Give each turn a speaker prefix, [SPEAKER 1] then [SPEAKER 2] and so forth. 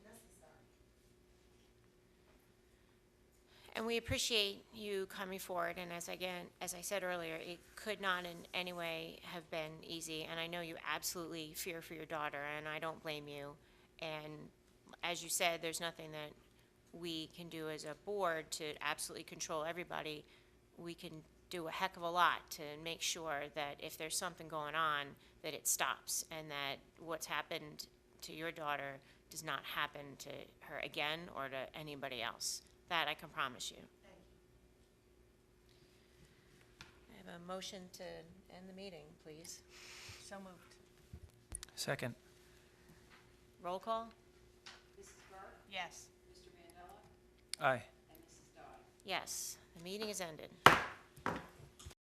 [SPEAKER 1] And we appreciate you coming forward, and as again, as I said earlier, it could not in any way have been easy, and I know you absolutely fear for your daughter, and I don't blame you. And as you said, there's nothing that we can do as a board to absolutely control everybody. We can do a heck of a lot to make sure that if there's something going on, that it stops, and that what's happened to your daughter does not happen to her again or to anybody else. That I can promise you. I have a motion to end the meeting, please.
[SPEAKER 2] So moved.
[SPEAKER 3] Second.
[SPEAKER 1] Roll call?
[SPEAKER 2] Yes.
[SPEAKER 3] Aye.
[SPEAKER 1] Yes, the meeting is ended.